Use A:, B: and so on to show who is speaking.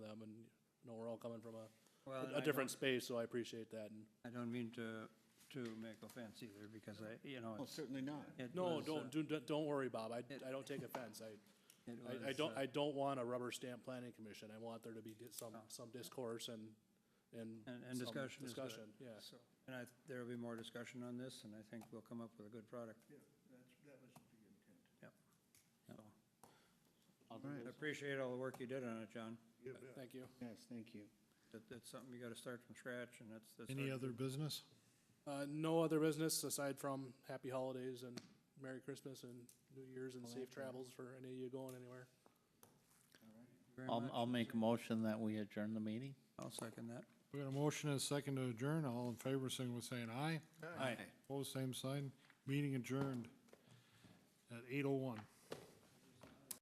A: all coming from a,
B: Well, and
A: a
B: I
A: different space, so I appreciate that. and-
B: don't- I don't mean to, to make offense either, because I, you know,
C: Well,
B: it's.
C: certainly not.
B: it
A: No,
B: was, uh,
A: don't, do- don't, don't worry, Bob. I, I don't take offense. I,
B: it
A: I, I
B: was,
A: don't,
B: uh,
A: I don't want a rubber stamp planning commission. I want there to be di- some, some discourse and, and.
B: And, and
A: some
B: discussion is good.
A: Discussion, yeah.
B: So, And I, there'll be more discussion on this, and I think we'll come up with a good product. Yeah, that's, that was the intent.
C: All
B: Yep. So, I
C: right.
B: appreciate all the work you did on it, John.
A: Thank you.
C: Yes, thank you.
B: That, that's something you gotta start from scratch, and that's, that's.
D: Any
B: hard.
D: other business?
A: Uh, no other business aside from happy holidays and Merry Christmas and New Year's and safe travels for any of you going anywhere.
B: Very
E: I'll,
B: much.
E: I'll make a motion that we adjourn the meeting.
B: I'll second that.
D: We got a motion and a second to adjourn. All in favor, signal with saying aye.
E: Aye.
D: Opposed, same sign. Meeting adjourned at eight oh one.